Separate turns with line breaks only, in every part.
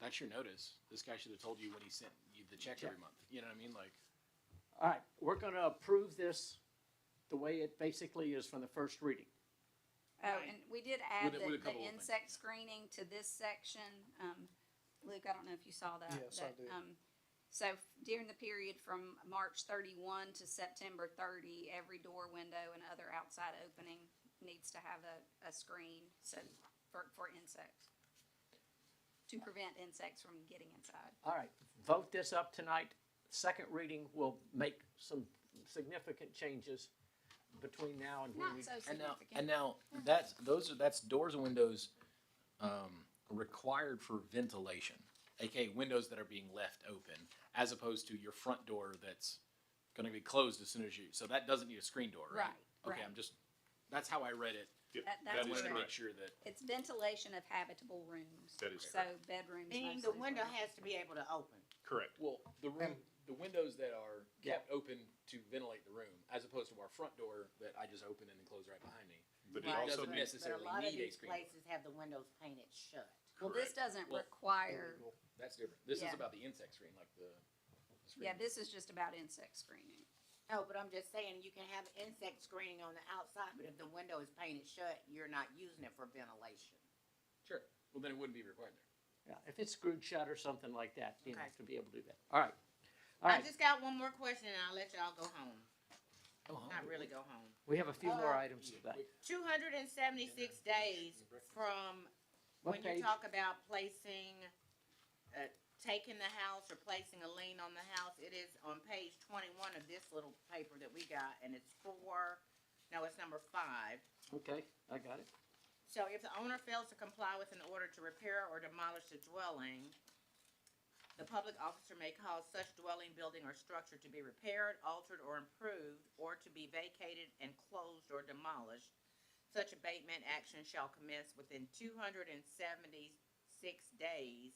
that's your notice. This guy should have told you when he sent you the check every month. You know what I mean? Like,
All right, we're gonna approve this the way it basically is from the first reading.
Oh, and we did add
With a-
the,
with a
the
couple of things,
insect
yeah.
screening to this section. Um, Luke, I don't know if you saw that.
Yes, I
that,
did.
um, So during the period from March thirty-one to September thirty, every door, window, and other outside opening needs to have a, a screen, so, for, for insects. To prevent insects from getting inside.
All right, vote this up tonight. Second reading will make some significant changes between now and when
Not
we.
so
and now,
significant.
and now that's those are that's doors and windows um, required for ventilation, aka windows that are being left open, as opposed to your front door that's going to be closed as soon as you. So that doesn't need a screen door, right?
Right,
Okay,
right.
I'm just. That's how I read it.
Yep,
That-
I
that's
that is
wanted to make
correct.
sure that
It's ventilation of habitable rooms.
That is
So bedrooms mostly.
Meaning the
is
window
what-
has to be able to open.
Correct.
well the room the windows that are kept open to ventilate the room, as opposed to our front door that I just open and then close right behind me.
But it
Right.
also
Doesn't
needs
necessarily
But a lot of
need a
these
screen door.
places have the windows painted shut.
Well, this doesn't
Well,
require,
That's different. This is
Yeah.
about the insect screen, like the. the screen.
yeah, this is just about insect screening.
No, but I'm just saying, you can have insect screening on the outside, but if the window is painted shut, you're not using it for ventilation.
Sure. Well, then it wouldn't be required there.
Yeah, If it's screwed shut or something like that, you
Okay.
have to be able to do that. All right. All
I
right,
just got one more question and I'll let y'all go home.
Oh,
Not really go home.
we have a few more
Uh,
items today.
Two hundred and seventy-six days from
What
when you
page?
talk about placing, uh, taking the house or placing a lien on the house, it is on page twenty-one of this little paper that we got, and it's four, no, it's number five.
Okay, I got it.
So if the owner fails to comply with an order to repair or demolish the dwelling, the public officer may cause such dwelling, building, or structure to be repaired, altered, or improved, or to be vacated and closed or demolished. Such abatement action shall commence within two hundred and seventy-six days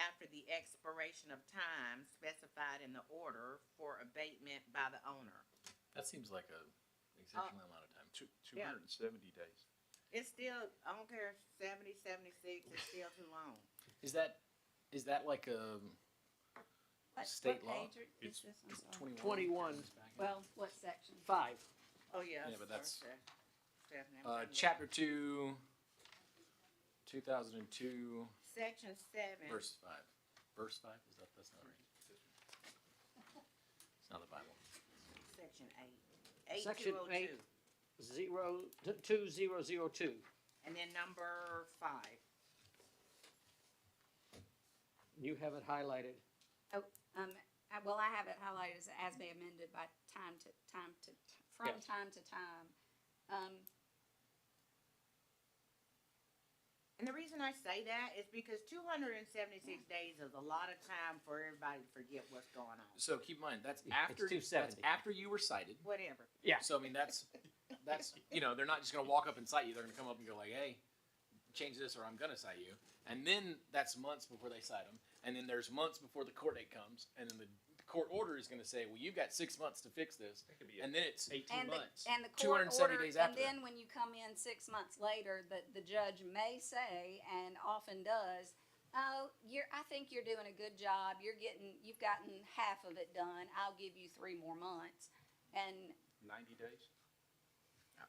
after the expiration of time specified in the order for abatement by the owner.
That seems like a exceptional
Uh,
amount of time.
Two, two hundred and seventy days.
It's still, I don't care, seventy, seventy-six, it's still too long.
Is that is that like um, a
What-
State
what
law.
page are- is
It's
this? I'm sorry.
twenty-one?
21.
Well, what section?
Five,
Oh, yeah.
Yeah, but that's-
Thursday. Stephanie, I'm
uh,
thinking-
chapter two, two thousand and two,
Section seven.
verse five. Verse five is that that's not right. It's not the Bible.
Section eight. Eight
Section
two oh two.
eight. zero, two, zero, zero, two.
And then number five.
You have it highlighted.
Um, I- well, I have it highlighted as, as may amended by time to, time to, from
Yes.
time to time. Um,
And the reason I say that is because two hundred and seventy-six days is a lot of time for everybody to forget what's going on.
So keep in mind that's
It's
after that's
270.
after you were cited.
Whatever.
Yeah.
So I mean that's that's you know they're not just gonna walk up and cite you. They're gonna come up and go like, hey, change this or I'm gonna cite you. And then that's months before they cite them. And then there's months before the court date comes. And then the court order is gonna say, well, you've got six months to fix this.
That could be
And then it's
eighteen
and the,
months.
and the court
270
order,
days
and
after that.
then when you come in six months later, the, the judge may say, and often does, oh, you're, I think you're doing a good job, you're getting, you've gotten half of it done, I'll give you three more months. And
Ninety days?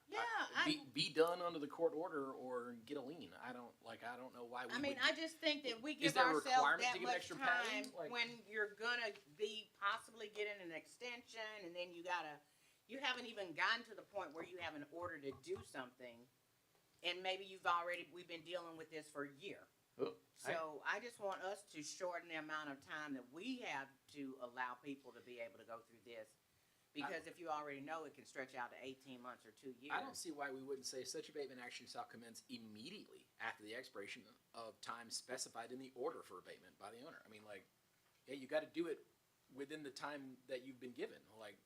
Yeah,
be,
I,
be done under the court order or get a lien. I don't like I don't know why we
I
would-
mean, I just think that we
Is
give
there a requirement to
ourselves that
give
much
extra pay?
time
Like-
when you're gonna be possibly getting an extension and then you gotta, you haven't even gotten to the point where you have an order to do something. And maybe you've already, we've been dealing with this for a year.
Oh, I-
So I just want us to shorten the amount of time that we have to allow people to be able to go through this. Because if you already know, it can stretch out to eighteen months or two
I don't
years.
see why we wouldn't say such abatement action shall commence immediately after the expiration of time specified in the order for abatement by the owner. I mean, like, yeah, you gotta do it within the time that you've been given, like,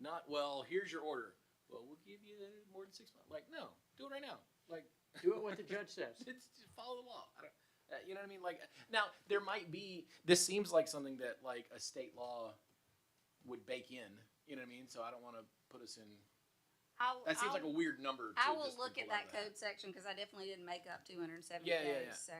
not, well, here's your order. Well, we'll give you more than six months. Like, no, do it right now. Like,
Do it what the judge says.
it's, just follow the law. I don't, uh, you know what I mean? Like now, there might be. This seems like something that like a state law would bake in. You know what I mean? So I don't want to put us in.
I'll,
That seems
I'll-
like a weird number. To
I will
just
look at
allow
that code section, cause I definitely didn't make up two hundred and seventy
Yeah, yeah, yeah.
days, so.